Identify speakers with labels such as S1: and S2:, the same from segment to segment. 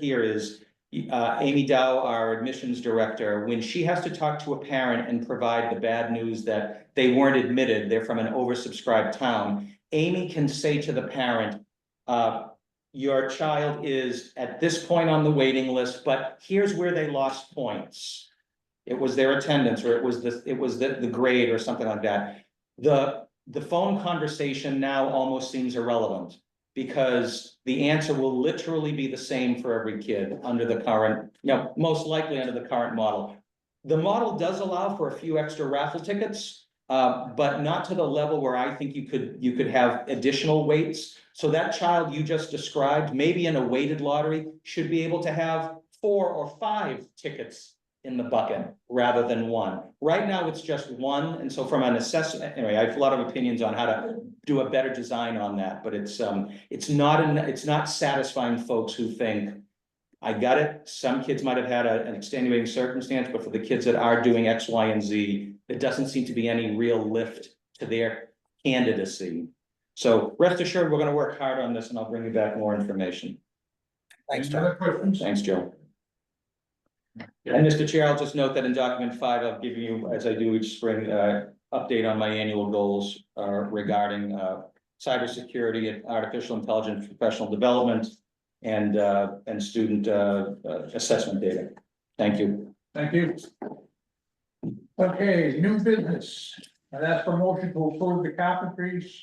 S1: here is uh, Amy Dow, our admissions director, when she has to talk to a parent and provide the bad news that they weren't admitted, they're from an oversubscribed town, Amy can say to the parent, uh, your child is at this point on the waiting list, but here's where they lost points. It was their attendance, or it was the, it was the, the grade or something like that. The, the phone conversation now almost seems irrelevant. Because the answer will literally be the same for every kid under the current, you know, most likely under the current model. The model does allow for a few extra raffle tickets, uh, but not to the level where I think you could, you could have additional weights. So that child you just described, maybe in a weighted lottery, should be able to have four or five tickets in the bucket rather than one. Right now, it's just one, and so from an assessment, anyway, I have a lot of opinions on how to do a better design on that, but it's, um, it's not, an- it's not satisfying folks who think, I got it, some kids might have had a- an extenuating circumstance, but for the kids that are doing X, Y, and Z, there doesn't seem to be any real lift to their candidacy. So rest assured, we're gonna work hard on this, and I'll bring you back more information.
S2: Thanks,
S3: Any other
S2: John.
S3: questions?
S1: Thanks, Joe. And Mr. Chair, I'll just note that in document five, I've given you, as I do each spring, uh, update on my annual goals uh, regarding uh, cybersecurity and artificial intelligence, professional development, and, uh, and student uh, uh, assessment data. Thank you.
S3: Thank you. Okay, new business, and that's for motion to approve the carpentries.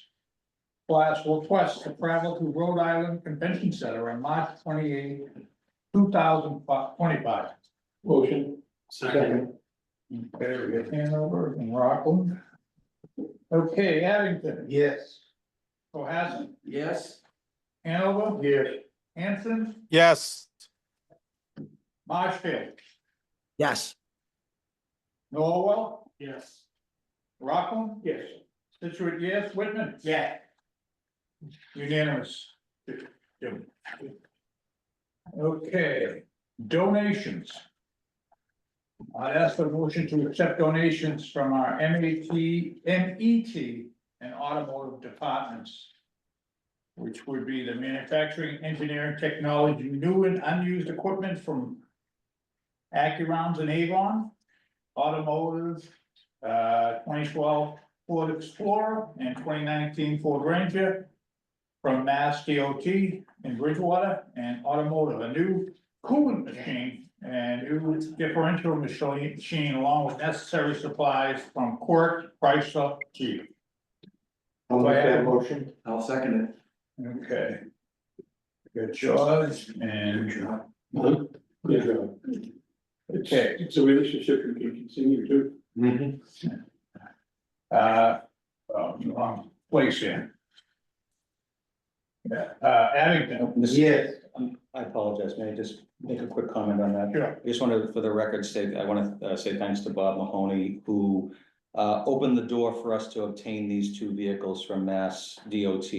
S3: Class request to travel to Rhode Island Convention Center on March twenty eighth, two thousand twenty five. Motion. Second. There we go, Hanover and Rockland. Okay, Abington. Yes. Cohasset,
S2: Yes.
S3: Hanover. Yes. Hanson,
S4: Yes,
S3: Marshfield,
S2: Yes.
S3: Norwell,
S2: Yes.
S3: Rockland.
S2: Yes.
S3: Situate, yes, Whitman?
S2: Yeah.
S3: Unanimous. Okay, donations. I'd ask for a motion to accept donations from our MAT, MET E and automotive departments. Which would be the manufacturing, engineering, technology, new and unused equipment from. Accurounds and Avon, automotive, uh, twenty twelve Ford Explorer and twenty nineteen Ford Ranger. From Mass DOT in Bridgewater and automotive, a new coolant machine and new differential machine, machine along with necessary supplies from Quirk, Chrysler, Jeep.
S2: I'll
S3: make that
S2: motion. I'll second it.
S3: Okay. Good Jaws and,
S5: Yeah,
S3: okay,
S5: it's a relationship you can continue to.
S3: uh, um, wrong place here. Yeah, uh, Abington,
S1: Yes. um, I apologize. May I just make a quick comment on that?
S3: sure,
S1: I just want to, for the record, say, I want to say thanks to Bob Mahoney, who uh, opened the door for us to obtain these two vehicles from Mass DOT.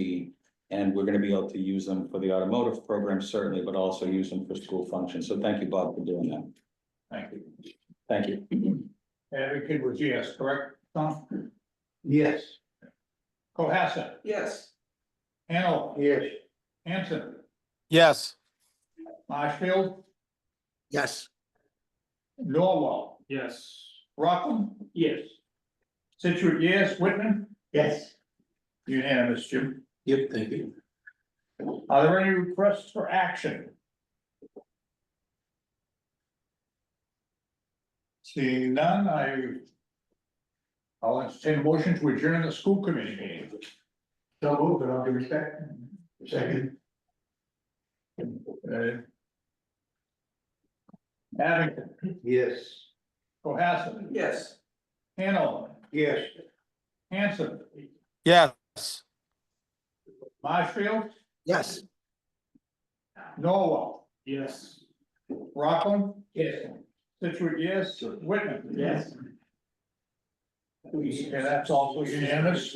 S1: And we're going to be able to use them for the automotive program certainly, but also use them for school functions. So thank you, Bob, for doing that.
S3: thank you.
S1: Thank you.
S3: Abington was yes, correct, Tom?
S2: Yes.
S3: Cohasset,
S2: Yes.
S3: Hanover,
S2: Yes.
S3: Hanson,
S4: yes,
S3: Marshfield,
S2: Yes.
S3: Norwell,
S2: Yes.
S3: Rockland,
S2: Yes.
S3: Situate, yes, Whitman,
S2: Yes.
S3: unanimous, Jim.
S2: Yep, thank you.
S3: Are there any requests for action? Seeing none, I. I'll entertain a motion to adjourn the school committee meeting.
S2: So move, but I'll give it back. Second.
S3: Uh, Abington,
S2: Yes.
S3: Oh, Cohasset,
S2: Yes.
S3: Hanover,
S2: Yes.
S3: Hanson,
S4: yes.
S3: Marshfield,
S2: Yes.
S3: Norwell,
S2: Yes.
S3: Rockland,
S2: Yes.
S3: Situate, yes, Whitman.
S2: Yes.
S3: Okay, that's also unanimous.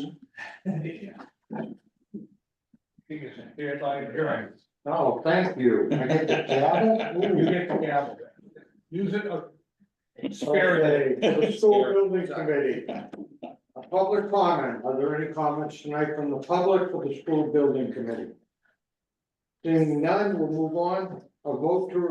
S3: Here's our hearing.
S2: Oh, thank you. I get the gavel?
S3: You get the gavel. Use it uh, sparingly.
S6: Okay, the school building committee. A public comment, are there any comments tonight from the public for the school building committee? Seeing none, we'll move on, a vote to